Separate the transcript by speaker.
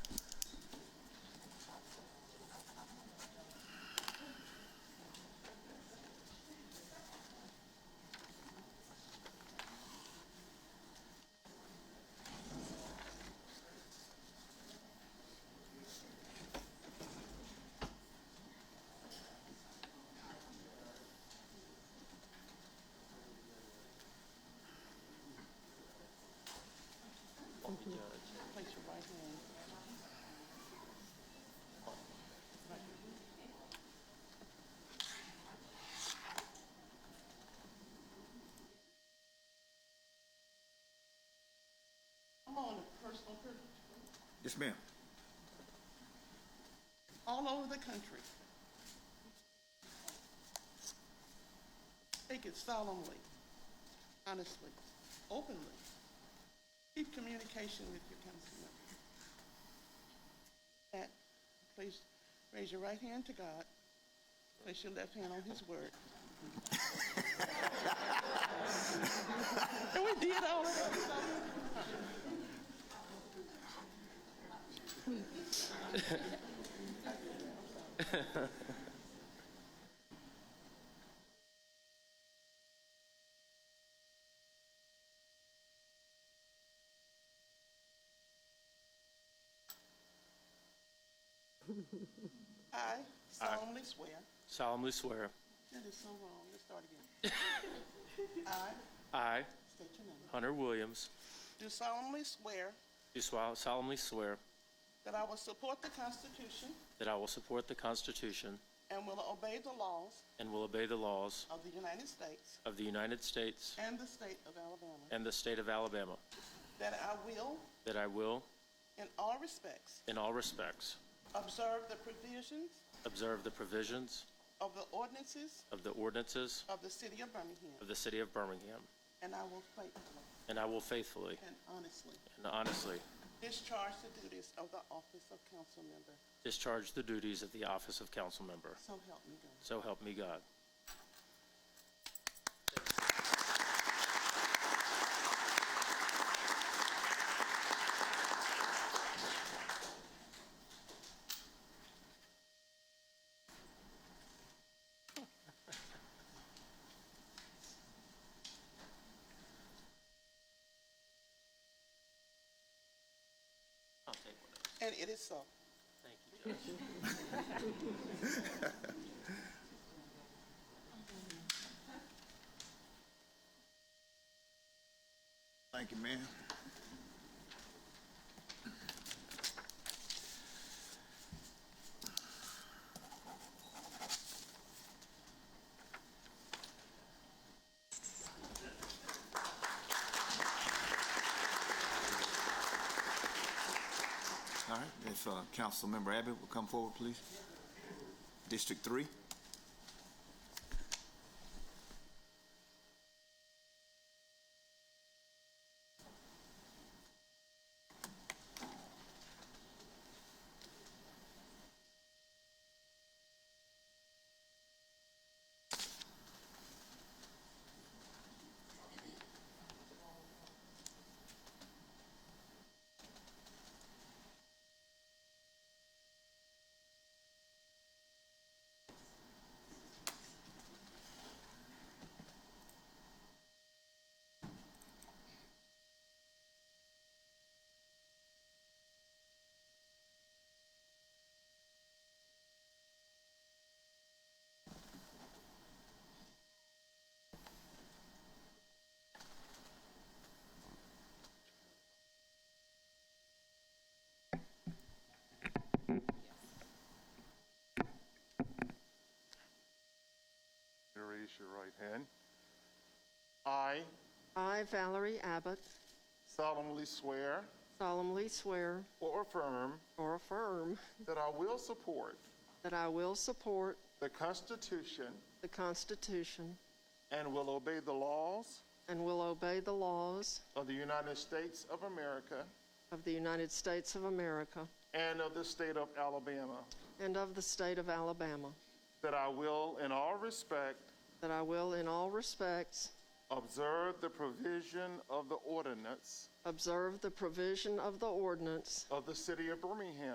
Speaker 1: Judge, place your right hand. I'm on a personal privilege.
Speaker 2: Yes, ma'am.
Speaker 1: all over the country. Take it solemnly, honestly, openly. Keep communication with your council members. That, please raise your right hand to God. Place your left hand on His word. and we did all of that. I solemnly swear.
Speaker 3: solemnly swear,
Speaker 1: That is so wrong. Let's start again. I
Speaker 3: I,
Speaker 1: state your name.
Speaker 3: Hunter Williams,
Speaker 1: Do solemnly swear.
Speaker 3: do swol- solemnly swear
Speaker 1: That I will support the Constitution
Speaker 3: that I will support the Constitution
Speaker 1: and will obey the laws
Speaker 3: and will obey the laws
Speaker 1: of the United States
Speaker 3: of the United States
Speaker 1: and the state of Alabama.
Speaker 3: and the state of Alabama,
Speaker 1: That I will,
Speaker 3: that I will,
Speaker 1: in all respects,
Speaker 3: in all respects,
Speaker 1: observe the provisions
Speaker 3: observe the provisions
Speaker 1: of the ordinances
Speaker 3: of the ordinances
Speaker 1: of the city of Birmingham.
Speaker 3: of the city of Birmingham,
Speaker 1: And I will faithfully
Speaker 3: and I will faithfully
Speaker 1: and honestly
Speaker 3: and honestly
Speaker 1: discharge the duties of the office of council member.
Speaker 3: discharge the duties of the office of council member.
Speaker 1: So help me God.
Speaker 3: So help me God. I'll take one of those.
Speaker 1: And it is so.
Speaker 3: Thank you, Judge.
Speaker 2: Thank you, ma'am. All right, if uh, Councilmember Abbott will come forward, please. District Three.
Speaker 4: You Raise your right hand. I
Speaker 5: I, Valerie Abbott,
Speaker 4: solemnly swear
Speaker 5: solemnly swear
Speaker 4: or affirm
Speaker 5: or affirm
Speaker 4: that I will support
Speaker 5: that I will support
Speaker 4: the Constitution
Speaker 5: the Constitution
Speaker 4: and will obey the laws
Speaker 5: and will obey the laws
Speaker 4: of the United States of America
Speaker 5: of the United States of America
Speaker 4: and of the state of Alabama,
Speaker 5: and of the state of Alabama,
Speaker 4: that I will, in all respect,
Speaker 5: that I will in all respects
Speaker 4: observe the provision of the ordinance
Speaker 5: observe the provision of the ordinance
Speaker 4: of the city of Birmingham.